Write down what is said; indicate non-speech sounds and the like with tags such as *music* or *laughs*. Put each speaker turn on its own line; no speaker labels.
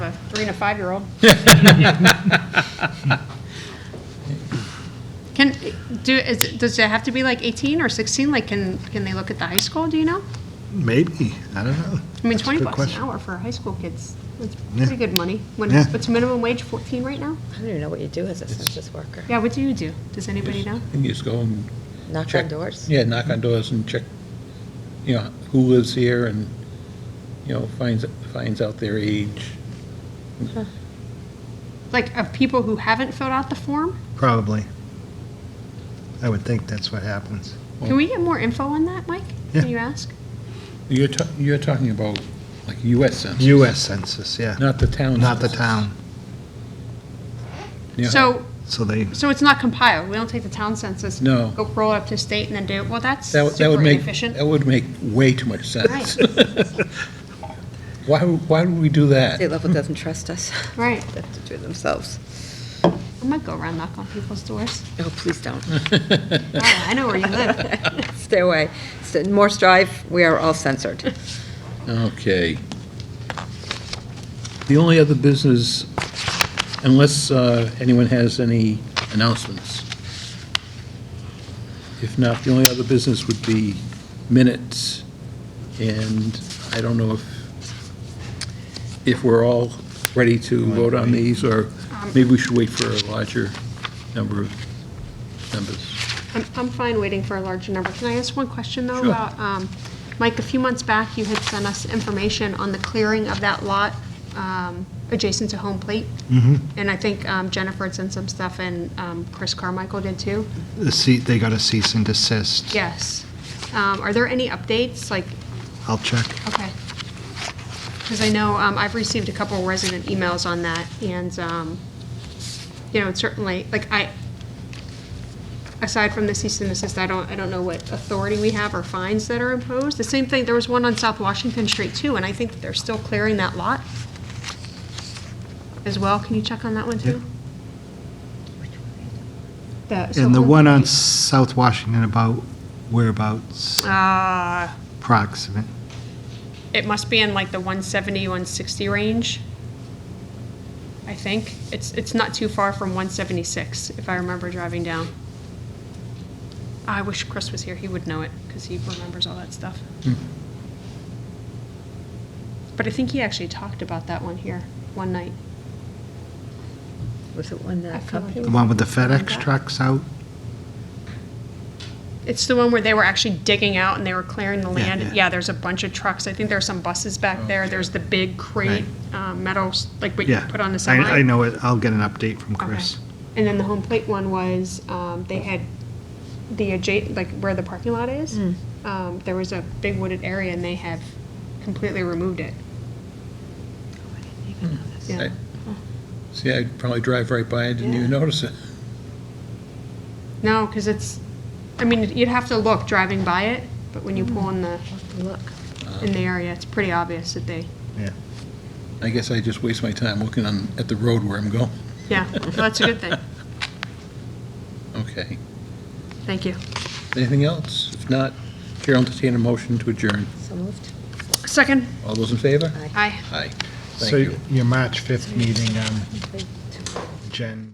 three and a
*laughs*
five-year-old. Can, do, is, does it have to be like 18 or 16? Like, can, can they look at the high school, do you know?
Maybe, I don't know.
I mean,
That's a
20 bucks
good
an
question.
hour for high school kids, that's
Yeah.
pretty good money. When,
Yeah.
what's minimum wage, 14 right now?
I don't even know what you do as a census worker.
Yeah, what do you do? Does anybody know?
You just go and
Knock
check.
on doors?
Yeah, knock on doors and check, you know, who lives here and, you know, finds, finds out their age.
Like, of people who haven't filled out the form?
Probably. I would think that's what happens.
Can we get more info on that, Mike?
Yeah.
Can you ask?
You're, ta- you're talking about like US Census,
US Census, yeah,
not the town.
not the
census.
town.
Yeah.
So,
So they,
so it's not compiled, we don't take the town census?
No.
Go roll it up to state and then do it, well, that's
That would- that would
super
make,
inefficient.
that would make way too much sense. *laughs* Why, would- why would we do
State
that?
level doesn't
*laughs*
trust us.
Right,
They have to do it themselves.
I might go around knock on people's doors.
Oh, please
*laughs*
don't.
Oh, I know where you live.
Stay away. So, Morse Drive, we are all censored.
Okay. The only other business, unless uh, anyone has any announcements. If not, the only other business would be minutes, and I don't know if, if we're all ready to vote on these, or maybe we should wait for a larger number of members.
I'm, I'm fine waiting for a larger number. Can I ask one question, though,
Sure.
about, um, Mike, a few months back, you had sent us information on the clearing of that lot um, adjacent to Home Plate. And I think um, Jennifer had sent some stuff, and um, Chris Carmichael did, too.
the ce- they got a cease and desist.
Yes. Um, Are there any updates, like,
I'll check.
okay. Because I know um, I've received a couple resident emails on that, and, um, you know, it's certainly, like, I, aside from the cease and desist, I don't, I don't know what authority we have or fines that are imposed. The same thing, there was one on South Washington Street, too, and I think they're still clearing that lot as well. Can you check on that one, too? The- so
And the
Home-
one on South Washington about whereabouts
Uh,
proximate.
It must be in like the 170, 160 range, I think. It's, it's not too far from 176, if I remember driving down. I wish Chris was here, he would know it, because he remembers all that stuff.
Hmm.
But I think he actually talked about that one here, one night.
Was it one that company?
The one with the FedEx trucks out?
It's the one where they were actually digging out and they were clearing the
Yeah,
land.
yeah.
Yeah, there's a bunch of trucks, I think there's some buses back there, there's the big crate, um, metals, like what you
Yeah.
put on
I-
the semi.
I know it. I'll get an update from Chris.
Okay. And then the home plate one was, um, they had the adjacent, like where the parking lot is, um, there was a big wooded area and they have completely removed it. Yeah.
I- See, I'd probably drive right by, I didn't even notice it.
No, because it's, I mean, you'd have to look driving by it, but when you pull in the,
Look.
in the area, it's pretty obvious that they,
Yeah.
I guess I just waste my time looking on, at the road where I'm going.
yeah, well, that's a good thing.
Okay.
Thank you.
Anything else? If not, Chair will entertain a motion to adjourn.
So moved.
Second,
All those in favor?
aye.
Aye. Thank
So
you.
your March 5th meeting, um, Jen.